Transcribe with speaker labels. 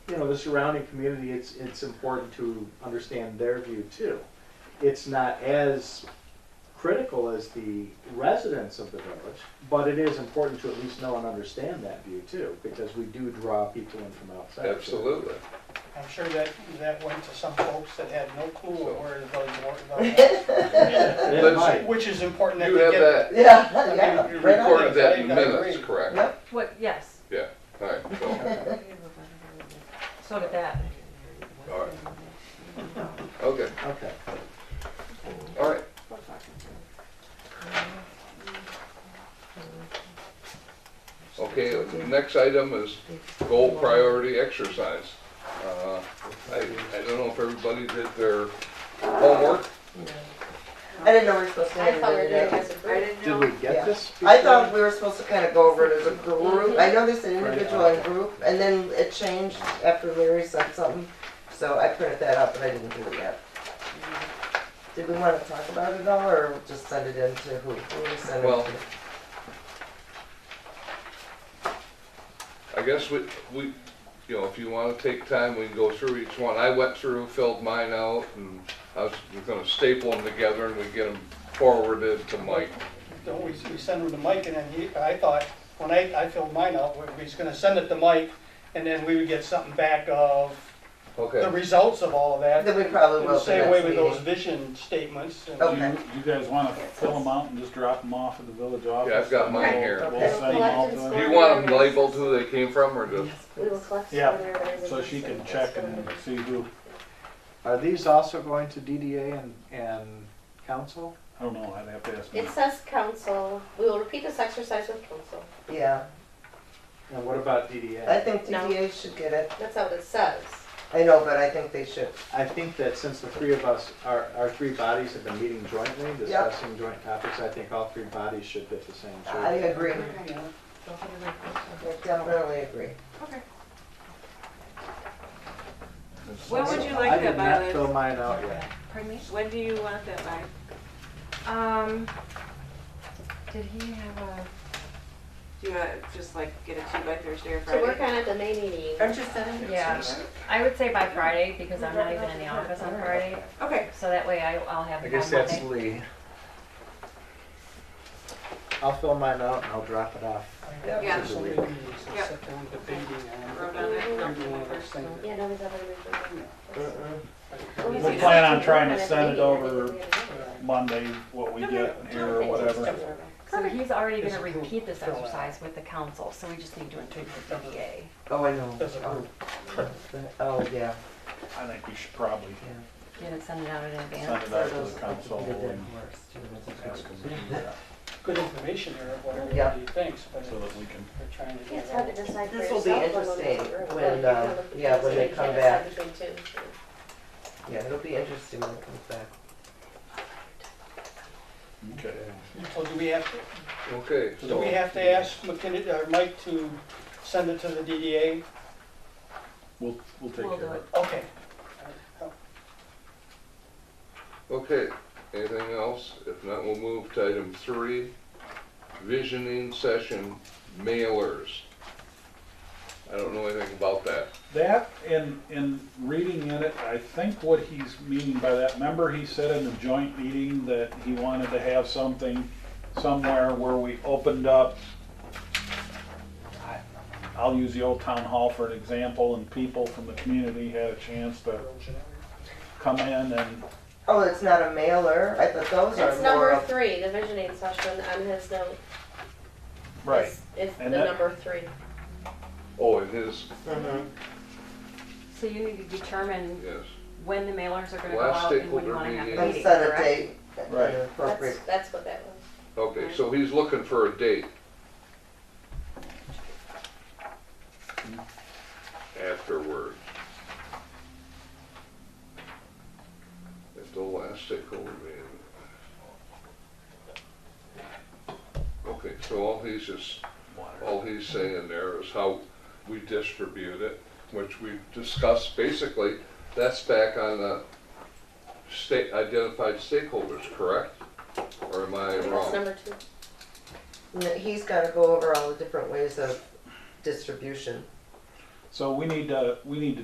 Speaker 1: know, the surrounding community, it's, it's important to understand their view too. It's not as critical as the residents of the village, but it is important to at least know and understand that view too, because we do draw people in from outside.
Speaker 2: Absolutely.
Speaker 3: I'm sure that, that went to some folks that had no clue
Speaker 2: So-
Speaker 3: of where the village was about.
Speaker 1: It
Speaker 2: Let's-
Speaker 1: might.
Speaker 3: Which is important that
Speaker 2: You
Speaker 3: they
Speaker 2: have
Speaker 3: get.
Speaker 2: that,
Speaker 3: I
Speaker 4: Yeah,
Speaker 3: mean,
Speaker 4: yeah.
Speaker 3: you
Speaker 4: right on.
Speaker 2: recorded that in
Speaker 3: I agree.
Speaker 2: minutes, correct?
Speaker 4: Yep.
Speaker 5: What, yes.
Speaker 2: Yeah, all right, so,
Speaker 5: So did that.
Speaker 2: all right. Okay,
Speaker 1: Okay.
Speaker 2: all right. Okay, the next item is goal priority exercise. Uh, I, I don't know if everybody did their homework.
Speaker 4: I didn't know we were supposed to.
Speaker 6: I thought we were
Speaker 4: do
Speaker 6: doing
Speaker 4: that.
Speaker 6: this as a group.
Speaker 1: Did we
Speaker 4: Yeah.
Speaker 1: get this?
Speaker 4: I thought we were supposed to kind of go over it as a
Speaker 6: Mm-hmm.
Speaker 4: group. I know they said
Speaker 1: Right.
Speaker 4: individual and group, and then it changed after Larry said something. So I printed that up, but I didn't do it yet.
Speaker 6: Mm-hmm.
Speaker 4: Did we want to talk about it at all, or just send it in to who? Who we send
Speaker 2: Well-
Speaker 4: it to?
Speaker 2: I guess we, we, you know, if you wanna take time, we can go through each one. I went through, filled mine out, and I was gonna staple them together and we get them forwarded to Mike.
Speaker 3: Don't we, we send them to Mike and then he, I thought, when I, I filled mine out, we we was gonna send it to Mike and then we would get something back of the
Speaker 2: Okay.
Speaker 3: results of all of that.
Speaker 4: Then we probably
Speaker 3: And
Speaker 4: will.
Speaker 3: the
Speaker 4: at the
Speaker 3: same way
Speaker 4: next
Speaker 3: with those
Speaker 4: meeting. Oh,
Speaker 3: vision statements and.
Speaker 4: Okay.
Speaker 7: Do you, you guys wanna fill them out and just drop them off at the village office?
Speaker 2: Yeah, I've got mine
Speaker 6: Okay.
Speaker 2: here.
Speaker 7: We'll
Speaker 4: Okay.
Speaker 7: send them all to
Speaker 2: Do
Speaker 7: her,
Speaker 2: you want them labeled who they came from or just?
Speaker 6: We will collect.
Speaker 7: Yeah,
Speaker 6: some of everybody's
Speaker 7: so she can
Speaker 6: information.
Speaker 7: check and see who,
Speaker 1: Are these also going to DDA and, and council?
Speaker 7: I don't know, I'd have to ask.
Speaker 6: It
Speaker 7: them.
Speaker 6: says council, we will repeat this exercise with council,
Speaker 4: Yeah,
Speaker 1: And what about
Speaker 4: I
Speaker 1: DDA?
Speaker 4: think
Speaker 6: No.
Speaker 4: DDA should get it.
Speaker 6: that's how it says.
Speaker 4: I know, but I think they should.
Speaker 1: I think that since the three of us, our, our three bodies have been meeting jointly, discussing joint topics, I think all three bodies should get the same
Speaker 4: I
Speaker 1: treatment.
Speaker 4: agree. I definitely agree.
Speaker 5: When would you
Speaker 1: I
Speaker 5: like
Speaker 1: did
Speaker 5: that
Speaker 1: not
Speaker 5: by,
Speaker 1: fill
Speaker 5: Liz?
Speaker 1: mine out yet.
Speaker 5: Pardon me? When do you want that by? Um, did he have a, do you wanna just like get it to you by Thursday or
Speaker 6: To work
Speaker 5: Friday?
Speaker 6: on it the May meeting.
Speaker 4: Aren't you sending?
Speaker 8: Yeah, I would say by Friday, because I'm not even in the office on Friday,
Speaker 5: Okay,
Speaker 8: so that way I, I'll have
Speaker 1: I
Speaker 8: it by
Speaker 1: guess that's
Speaker 8: Monday.
Speaker 1: Lee. I'll fill mine out and I'll drop it off.
Speaker 5: Yeah.
Speaker 3: So maybe we should
Speaker 5: Yeah.
Speaker 3: sit down debating and uh,
Speaker 5: wrote on it.
Speaker 3: every one of those things.
Speaker 6: Yeah, nobody's ever mentioned
Speaker 4: Uh-uh.
Speaker 6: that.
Speaker 7: We plan on trying to send it over
Speaker 3: uh,
Speaker 7: Monday, what we get here or whatever.
Speaker 8: So he's already
Speaker 3: It's
Speaker 8: gonna
Speaker 3: approved.
Speaker 8: repeat this
Speaker 3: Fill it out.
Speaker 8: exercise with the council, so we just need to include the DDA.
Speaker 4: Oh, I know.
Speaker 3: Doesn't
Speaker 4: Oh,
Speaker 3: work.
Speaker 4: Oh, yeah,
Speaker 7: I think we should probably
Speaker 4: yeah.
Speaker 8: Get it, send it out in
Speaker 7: send
Speaker 8: advance.
Speaker 7: it
Speaker 4: So
Speaker 7: out to
Speaker 4: those-
Speaker 7: the council and ask them to do that,
Speaker 3: Good information here, of what
Speaker 4: Yeah.
Speaker 3: everybody thinks, but
Speaker 7: so that we can,
Speaker 3: we're trying to. do
Speaker 6: It's
Speaker 3: that.
Speaker 6: hard to decide for
Speaker 4: This will be
Speaker 6: yourself when we're in the
Speaker 4: interesting
Speaker 6: room,
Speaker 4: when,
Speaker 6: but you
Speaker 4: uh,
Speaker 6: can
Speaker 4: yeah, when
Speaker 6: look
Speaker 4: they
Speaker 6: between
Speaker 4: come
Speaker 6: two,
Speaker 4: back.
Speaker 6: decide between two, so.
Speaker 4: Yeah, it'll be interesting when it comes back.
Speaker 7: okay.
Speaker 3: So do we have, to-
Speaker 2: Okay,
Speaker 3: do we
Speaker 2: so,
Speaker 3: have to ask McKinney, or Mike to send it to the DDA?
Speaker 7: We'll, we'll take
Speaker 8: We'll
Speaker 7: care
Speaker 8: do
Speaker 7: of it.
Speaker 3: Okay.
Speaker 2: okay, anything else? If not, we'll move to item three, visioning session mailers. I don't know anything about that.
Speaker 7: That, and, and reading in it, I think what he's meaning by that, remember he said in the joint meeting that he wanted to have something somewhere where we opened up, I- I'll use the old town hall for an example, and people from the community had a chance to come in and,
Speaker 4: Oh, it's not a mailer. I thought those are
Speaker 6: It's
Speaker 4: more
Speaker 6: number
Speaker 4: of.
Speaker 6: three, the visioning session on his note
Speaker 7: right,
Speaker 6: is, is the
Speaker 7: And that-
Speaker 6: number three.
Speaker 2: Oh, it is,
Speaker 4: Mhm.
Speaker 8: So you need to determine
Speaker 2: yes.
Speaker 8: when the mailers are gonna go
Speaker 2: Last
Speaker 8: out and when
Speaker 2: stakeholder
Speaker 8: you wanna have the
Speaker 2: meeting.
Speaker 4: And
Speaker 8: meeting,
Speaker 4: set a
Speaker 8: correct?
Speaker 4: date. at
Speaker 7: Right.
Speaker 4: an
Speaker 6: That's,
Speaker 4: Appropriate.
Speaker 6: that's what that was.
Speaker 2: Okay, so he's looking for a date. Afterward. At the last stakeholder meeting. Okay, so all he's just, all he's saying there is how we distribute it, which we discussed basically, that's back on the state, identified stakeholders, correct? Or am I
Speaker 6: That's
Speaker 2: wrong?
Speaker 6: number two.
Speaker 4: N- He's gotta go over all the different ways of distribution.
Speaker 7: so we need to, we need to